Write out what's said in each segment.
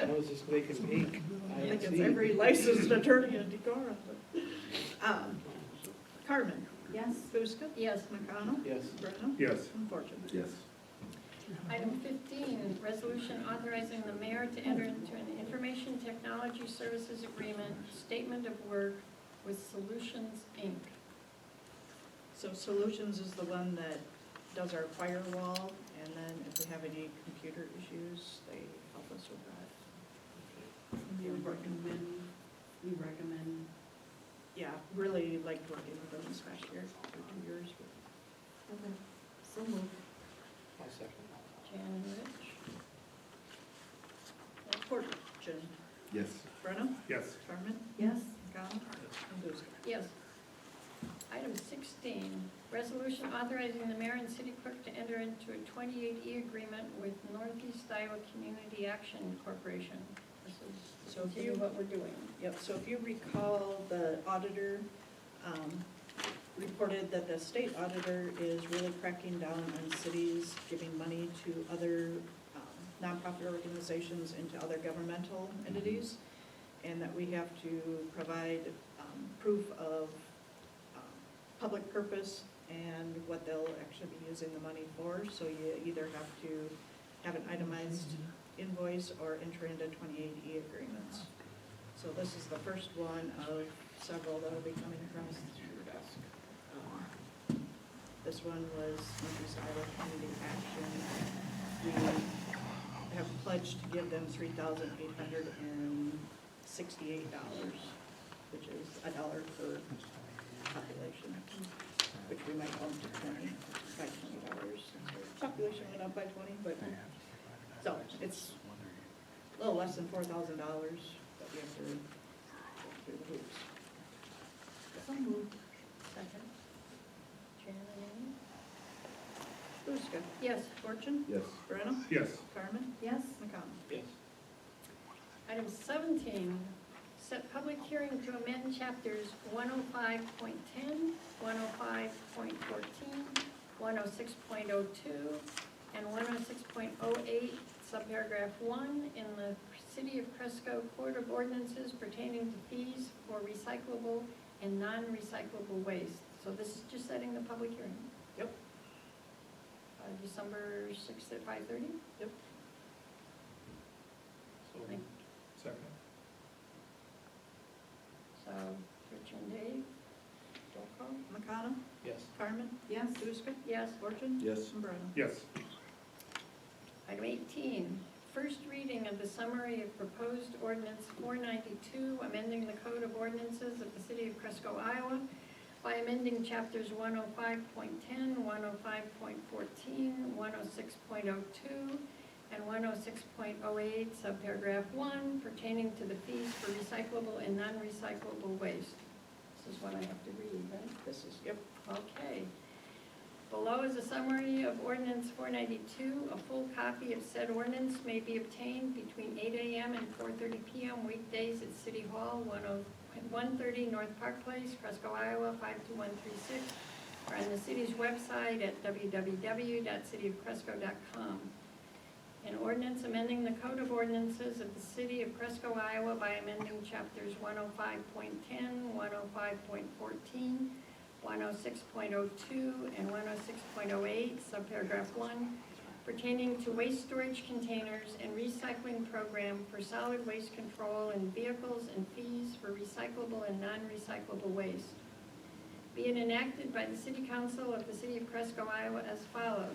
I was just making peek. I think it's every licensed attorney in Decorah. but, um, Carmen? Yes. Buska? Yes. McConnell? Yes. Brenham? Yes. Unfortunate. Yes. Item fifteen, resolution authorizing the mayor to enter into an information technology services agreement, statement of work with Solutions, Inc. So Solutions is the one that does our firewall, and then if we have any computer issues, they help us with that. You recommend, you recommend, Yeah, really liked working with them this past year, for two years. but- okay, so moved. I'll second. Jan Rich. Unfortunate. Yes. Brenham? Yes. Carmen? Yes, McConnell? And Buska? Yes. Item sixteen, resolution authorizing the mayor and city clerk to enter into a twenty-eight E agreement with Northeast Iowa Community Action Corporation. This is So to if you you- what we're doing. Yep, so if you recall, the auditor um, reported that the state auditor is really cracking down on cities giving money to other um, nonprofit organizations and to other governmental entities, and that we have to provide um, proof of um, public purpose and what they'll actually be using the money for. So you either have to have an itemized invoice or enter into 28E agreements. So this is the first one of several that'll be coming across your desk. Um, This one was Northeast Iowa Community Action. We have pledged to give them three thousand eight hundred and sixty-eight dollars, which is a dollar per population, which we might own to twenty, by twenty dollars. Population went up by twenty, but, so it's a little Oh, less than four thousand dollars that we have to go through the hoops. so moved. Second. Jan and Amy? Buska, Yes. Fortune, Yes. Brenham, Yes. Carmen, Yes, McConnell. Yes. Item seventeen, set public hearing to amend chapters 105.10, 105.14, 106.02, and one oh six point oh eight, subparagraph one, in the City of Cresco Court of Ordinances pertaining to fees for recyclable and non-recyclable waste. So this is just setting the public hearing. Yep. Uh, December sixth at five thirty? So, Thank Second. So, Rich and Dave, roll call. McConnell, yes. Carmen, yes, Buska, Yes. Fortune, Yes. and Brenham. Yes. Item 18, first reading of the summary of proposed ordinance 492, amending the Code of Ordinances of the City of Cresco, Iowa by amending chapters 105.10, 105.14, 106.02, and 106.08, subparagraph 1, pertaining to the fees for recyclable and non-recyclable waste. This is what I have to read, right? This is, yep, Okay. Below is a summary of ordinance four ninety-two. A full copy of said ordinance may be obtained between eight AM and four thirty PM weekdays at City Hall, 10 130 North Park Place, Fresco, Iowa, five two one three six, or on the city's website at www.cityofcresco.com. An ordinance amending the Code of Ordinances of the City of Cresco, Iowa by amending chapters 105.10, 105.14, 106.02 and 106.08, subparagraph 1, pertaining to waste storage containers and recycling program for solid waste control in vehicles and fees for recyclable and non-recyclable waste. Be it enacted by the City Council of the City of Cresco, Iowa as follows.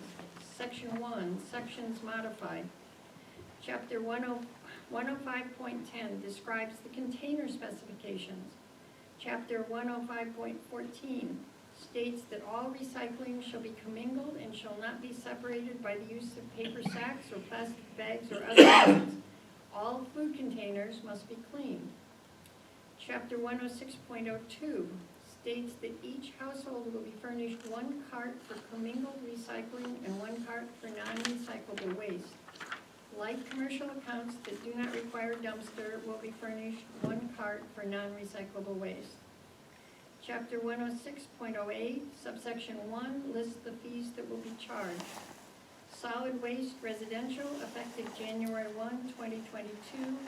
Section 1, Sections Modified. Chapter oh, 10 105.10 describes the container specifications. Chapter 105.14 states that all recycling shall be commingled and shall not be separated by the use of paper sacks or plastic bags or other items. All food containers must be cleaned. Chapter 106.02 states that each household will be furnished one cart for commingled recycling and one cart for non-recyclable waste. Like commercial accounts that do not require dumpster will be furnished one cart for non-recyclable waste. Chapter one oh six point oh eight, subsection one, lists the fees that will be charged. solid waste residential effective January 1, 2022,